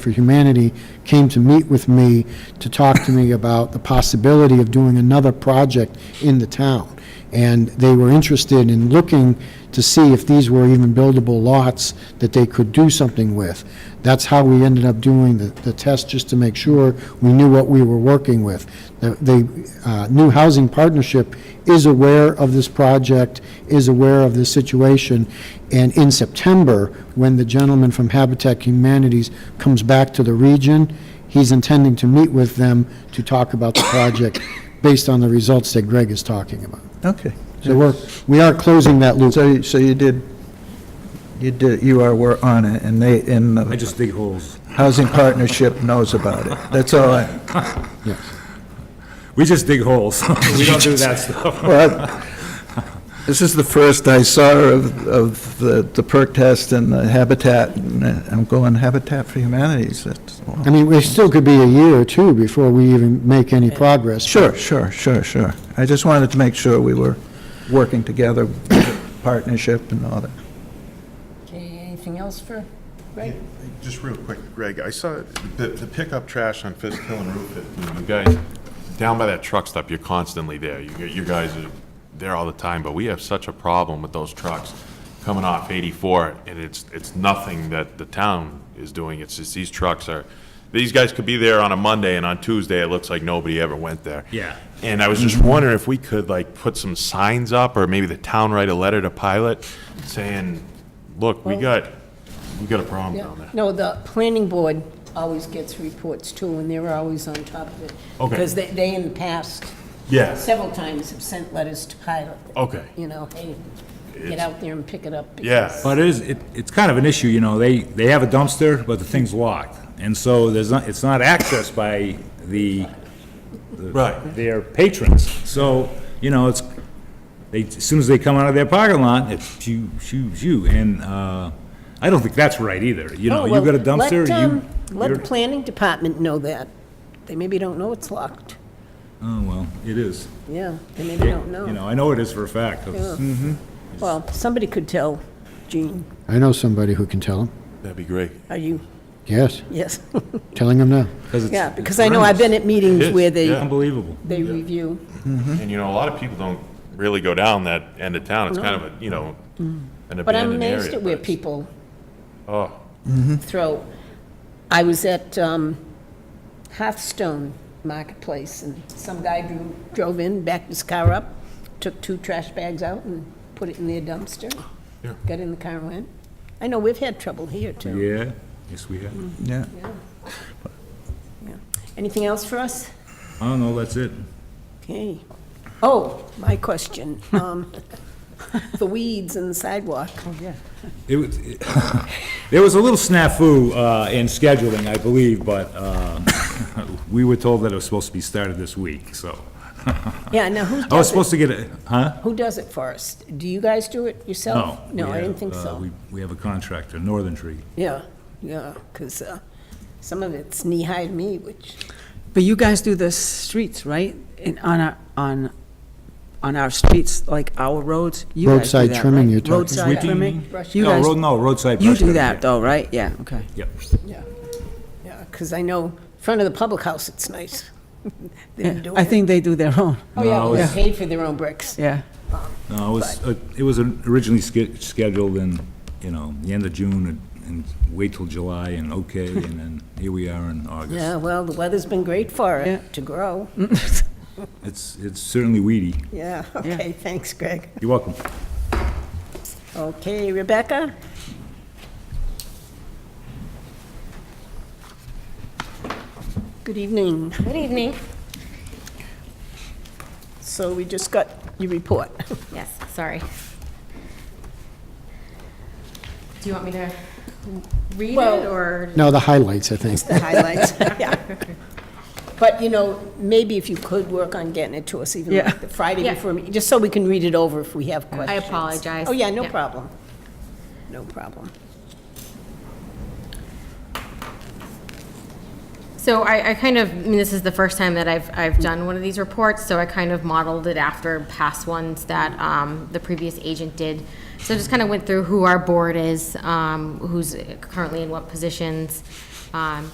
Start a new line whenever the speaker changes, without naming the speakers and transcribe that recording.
for Humanity came to meet with me to talk to me about the possibility of doing another project in the town. And they were interested in looking to see if these were even buildable lots that they could do something with. That's how we ended up doing the, the test, just to make sure we knew what we were working with. The, the uh, New Housing Partnership is aware of this project, is aware of this situation, and in September, when the gentleman from Habitat Humanities comes back to the region, he's intending to meet with them to talk about the project based on the results that Greg is talking about.
Okay.
So we're, we are closing that loop.
So, so you did, you did, you are, were on it, and they, and
I
the
just dig holes.
Housing Partnership knows about it. That's all I,
We just dig holes. We don't do that stuff.
well, this is the first I saw of, of the the perk test and the Habitat, and I'm going Habitat for Humanities, that's,
I mean, it still could be a year or two before we even make any progress.
sure, sure, sure, sure. I just wanted to make sure we were working together, partnership and all that.
Okay, anything else for Greg?
Just real quick, Greg, I saw the, the pickup trash on Fisk Hill and Route 15. You guys, down by that truck stop, you're constantly there. You, you guys are there all the time, but we have such a problem with those trucks coming off 84, and it's, it's nothing that the town is doing. It's just these trucks are, these guys could be there on a Monday, and on Tuesday, it looks like nobody ever went there.
Yeah.
And I was just wondering if we could like put some signs up, or maybe the town write a letter to Pilot saying, look, we got, we got a problem
Yeah.
down there.
No, the planning board always gets reports too, and they're always on top of it.
Okay.
Because they, they in the past,
Yeah.
several times have sent letters to Pilot.
Okay.
You know, hey, get out there and pick it up.
Yeah.
because-
But it is, it, it's kind of an issue, you know, they, they have a dumpster, but the thing's locked. And so there's not, it's not accessed by the,
Right.
their patrons. So, you know, it's, they, as soon as they come out of their parking lot, it's shoo, shoo, shoo. And, uh, I don't think that's right either, you know,
Oh,
you
well,
got a
let,
dumpster, you.
um, Let the
you're-
planning department know that. They maybe don't know it's locked.
Oh,
um,
well, it is.
Yeah, they maybe don't
You
know.
know, I know it is for a fact. Hmm. 'cause-
Well, somebody could tell Gene,
I know somebody who can tell them.
That'd be great.
are you,
Yes,
yes.
telling them now.
it's-
Yeah,
it's
because I know I've been at
It
meetings
is,
where they,
yeah.
Unbelievable.
they review.
And you know, a lot of people don't really go down that end of town. It's kind of a, you know, an
But I'm
abandoned area.
amazed at where
but-
people
Oh,
throw. I was at um, Hearthstone Marketplace, and some guy drew- drove in, backed his car up, took two trash bags out and put it in their dumpster,
Yeah.
got in the car and went. I know we've had trouble here, too.
Yeah, yes, we have.
Yeah.
Anything else for us?
I don't know, that's it.
Okay. Oh, my question, um, the weeds and the sidewalk.
It was, it- there was a little snafu uh, in scheduling, I believe, but uh, we were told that it was supposed to be started this week, so.
Yeah, now who
I was
does it?
supposed to get it, huh?
Who does it for us? Do you guys do it yourself?
No.
No,
we
I
have,
didn't think
uh,
so.
we- We have a contractor, Northern Tree.
Yeah, yeah, because some of it's knee-high to me, which,
But you guys do the streets, right? In, on our, on, on our streets, like our roads? You guys do
Roadside
that,
trimming,
right?
you're talking about.
We
Roadside
do-
trimming?
Brush
You
No,
guys-
road- no, roadside
You
brush
do
cutting,
that
yeah.
though, right? Yeah, okay.
Yep.
yeah, yeah, because I know front of the public house, it's nice. They've been
Yeah,
doing
I
it.
think they do their own,
Oh, yeah,
No,
well,
it's-
they paid for their own bricks.
yeah.
No, it was, uh, it was originally sch- scheduled in, you know, the end of June and- and wait till July and okay, and then here we are in
Yeah,
August.
well, the weather's been great for
Yeah. Mm.
it, to grow.
It's, it's certainly weedy.
Yeah, okay, thanks, Greg.
You're welcome.
Okay, Rebecca? Good evening.
Good evening.
So we just got your report.
Yes, sorry. Do you want me to read it
Well-
or?
No, the highlights, I think.
the highlights, yeah. But, you know, maybe if you could work on getting it to us even
Yeah.
like the Friday
Yeah.
before, me- just so we can read it over if we have questions.
apologize.
Oh, yeah, no
Yeah.
problem. No problem.
So I, I kind of, I mean, this is the first time that I've, I've done one of these reports, so I kind of modeled it after past ones that, um, the previous agent did. So just kind of went through who our board is, um, who's currently in what positions, um,